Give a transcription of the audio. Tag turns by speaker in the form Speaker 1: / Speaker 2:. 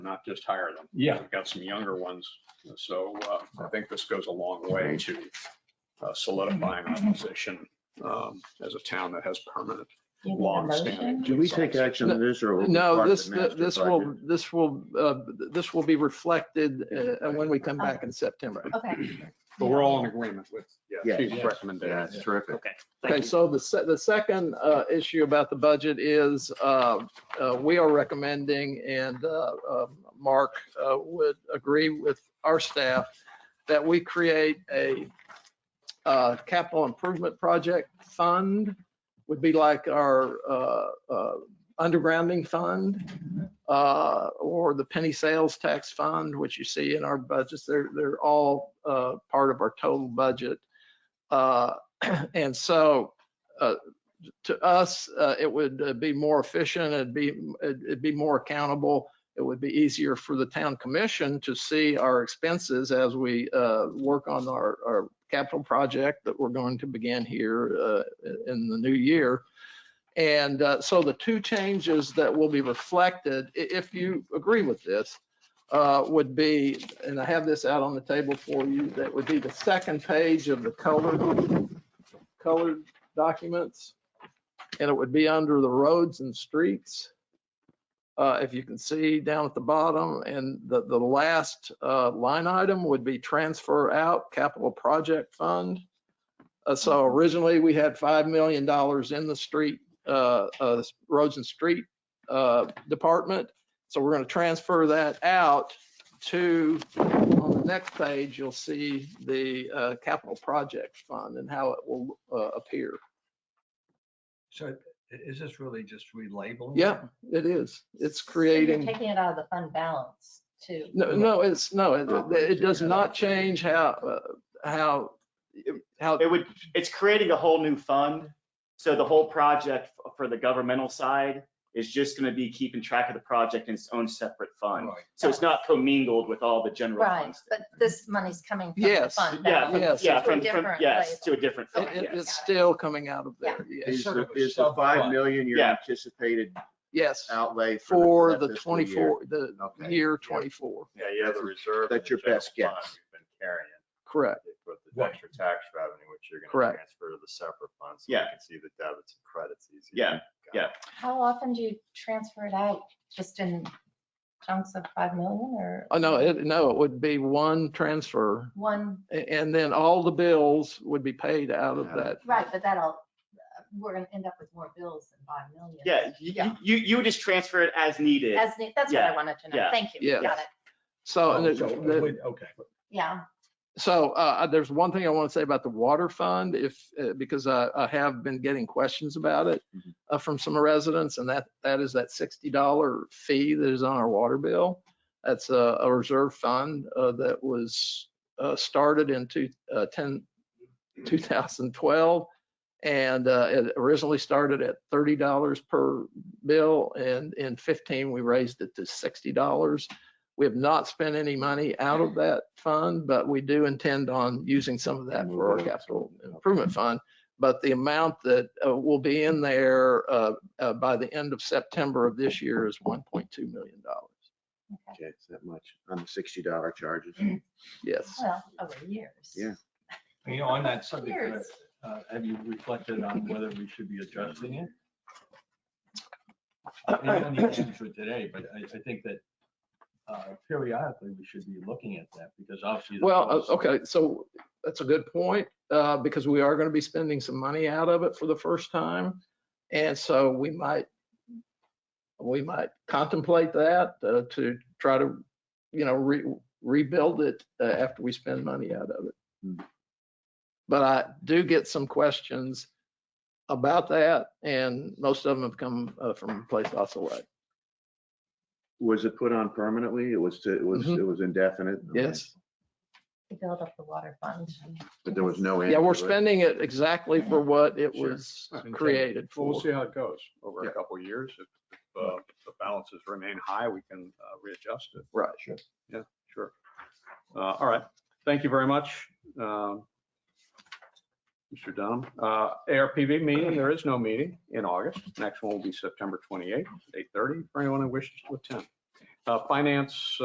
Speaker 1: not just hire them.
Speaker 2: Yeah.
Speaker 1: We've got some younger ones, so uh, I think this goes a long way to uh, solidifying our position um, as a town that has permanent,
Speaker 3: You need a
Speaker 1: long-standing.
Speaker 3: motion?
Speaker 4: Do we take action on this or? will we
Speaker 5: No,
Speaker 4: part of
Speaker 5: this,
Speaker 4: the master
Speaker 5: this
Speaker 4: budget?
Speaker 5: will, this will, uh, this will be reflected uh, when we come back in September.
Speaker 3: Okay.
Speaker 1: but we're all in agreement with, yeah,
Speaker 4: Yeah.
Speaker 1: chief's
Speaker 2: Yeah.
Speaker 4: Yeah,
Speaker 1: recommendation.
Speaker 4: it's terrific.
Speaker 6: Okay. thank
Speaker 5: Okay,
Speaker 6: you.
Speaker 5: so the, se- the second uh, issue about the budget is uh, uh, we are recommending and uh, uh, Mark uh, would agree with our staff that we create a uh, capital improvement project fund, would be like our uh, uh, undergrounding fund uh, or the penny sales tax fund, which you see in our budgets. They're, they're all uh, part of our total budget. Uh, And so uh, to us, uh, it would uh, be more efficient, it'd be, it'd it'd be more accountable. It would be easier for the town commission to see our expenses as we uh, work on our, our capital project that we're going to begin here uh, in the new year. And uh, so the two changes that will be reflected, i- if you agree with this, uh, would be, and I have this out on the table for you, that would be the second page of the colored, colored documents and it would be under the roads and streets. Uh, if you can see down at the bottom, and the, the last, uh, line item would be transfer out capital project fund. Uh, so originally, we had five million dollars in the street, uh, uh, roads and street, uh, department. So we're gonna transfer that out to, on the next page, you'll see the, uh, capital project fund and how it will, uh, appear.
Speaker 2: So i- is this really just relabeling?
Speaker 5: Yeah, it is. It's
Speaker 3: So you're
Speaker 5: creating,
Speaker 3: Taking it out of the fund balance too.
Speaker 5: no, no, it's, no, it, it it does not change how, uh, how, how,
Speaker 6: It would, it's creating a whole new fund. So the whole project f- for the governmental side is just going to be keeping track of the project in its own separate fund.
Speaker 2: Right.
Speaker 6: So it's not commingled with all the general
Speaker 3: Right,
Speaker 6: funds.
Speaker 3: but this money's coming from the
Speaker 5: Yes,
Speaker 3: fund
Speaker 6: Yeah,
Speaker 3: balance.
Speaker 6: from-
Speaker 5: Yes.
Speaker 6: yeah,
Speaker 3: To a
Speaker 6: from, from,
Speaker 3: different
Speaker 6: yes,
Speaker 3: label.
Speaker 6: to a different
Speaker 5: it-
Speaker 6: fund,
Speaker 5: it-
Speaker 6: yes.
Speaker 5: it's still coming out of there.
Speaker 4: Is
Speaker 5: Yes,
Speaker 2: sort
Speaker 4: the,
Speaker 2: of a
Speaker 4: is the five
Speaker 2: sub-fund.
Speaker 4: million your
Speaker 6: Yeah.
Speaker 4: anticipated
Speaker 5: yes,
Speaker 4: outlay for
Speaker 5: for
Speaker 4: that
Speaker 5: the
Speaker 4: fiscal year?
Speaker 5: twenty-four, the
Speaker 4: Okay.
Speaker 5: year twenty-four,
Speaker 7: Yeah, you have the reserve.
Speaker 4: That's
Speaker 7: in the
Speaker 4: your best
Speaker 7: general
Speaker 4: guess.
Speaker 7: fund We've been carrying
Speaker 5: correct.
Speaker 7: it with the
Speaker 2: Right.
Speaker 7: extra tax revenue, which you're gonna
Speaker 5: Correct.
Speaker 7: transfer to the separate fund. so
Speaker 6: Yeah.
Speaker 7: You can see the debits and credits easier.
Speaker 6: Yeah, yeah.
Speaker 3: How often do you transfer it out? Just in chunks of 5 million or?
Speaker 5: Oh, no, it, no, it would be one transfer
Speaker 3: One,
Speaker 5: a- and then all the bills would be paid out of that.
Speaker 3: right, but that'll, we're going to end up with more bills than 5 million.
Speaker 6: Yeah, you, you, you would just transfer it as needed.
Speaker 3: As, ne- that's what
Speaker 6: Yeah,
Speaker 3: I wanted to know.
Speaker 6: yeah,
Speaker 3: Thank you.
Speaker 5: yes.
Speaker 3: Got it.
Speaker 5: So, and
Speaker 2: Oh,
Speaker 5: it-
Speaker 2: so,
Speaker 5: the-
Speaker 2: wait, Okay.
Speaker 3: Yeah.
Speaker 5: So uh, there's one thing I want to say about the water fund, if, uh, because I I have been getting questions about it uh, from some residents, and that, that is that $60 fee that is on our water bill. That's a a reserve fund uh, that was uh, started in two- uh, 10 2012, and uh, it originally started at $30 per bill, and in 15, we raised it to $60. We have not spent any money out of that fund, but we do intend on using some of that for our capital improvement fund. But the amount that uh, will be in there uh, uh, by the end of September of this year is $1.2 million.
Speaker 4: Okay, it's that much on the sixty dollar charges.
Speaker 5: Yes.
Speaker 3: Well, over years.
Speaker 4: Yeah.
Speaker 2: You know, on that subject,
Speaker 3: Years.
Speaker 2: uh, have you reflected on whether we should be adjusting it? And you don't need to answer it today, but I, I think that uh, periodically we should be looking at that because obviously. the
Speaker 5: Well,
Speaker 2: policy-
Speaker 5: uh, okay, so that's a good point, uh, because we are going to be spending some money out of it for the first time. And so we might, we might contemplate that uh, to try to, you know, re- rebuild it uh, after we spend money out of
Speaker 4: Hmm.
Speaker 5: it. But I do get some questions about that, and most of them have come uh, from Place Ocelot.
Speaker 4: Was it put on permanently? It was, to- it was,
Speaker 5: Mhm.
Speaker 4: it was indefinite? Okay.
Speaker 5: Yes.
Speaker 3: To build up the water fund.
Speaker 4: But there was no. end
Speaker 5: Yeah, we're
Speaker 4: to it?
Speaker 5: spending it exactly for what it
Speaker 4: Sure.
Speaker 5: was created
Speaker 1: Well,
Speaker 5: for.
Speaker 1: we'll see how it goes over
Speaker 4: Yeah.
Speaker 1: a couple of years. If if, uh, the balances remain high, we can uh, readjust it.
Speaker 5: Right.
Speaker 1: Sure. Uh, All right. Thank you very much, um, Mr. Dunham. Uh, ARPV meeting, there is no meeting in August. Next one will be September 28th, 8:30, for anyone who wishes to attend. Uh, Finance,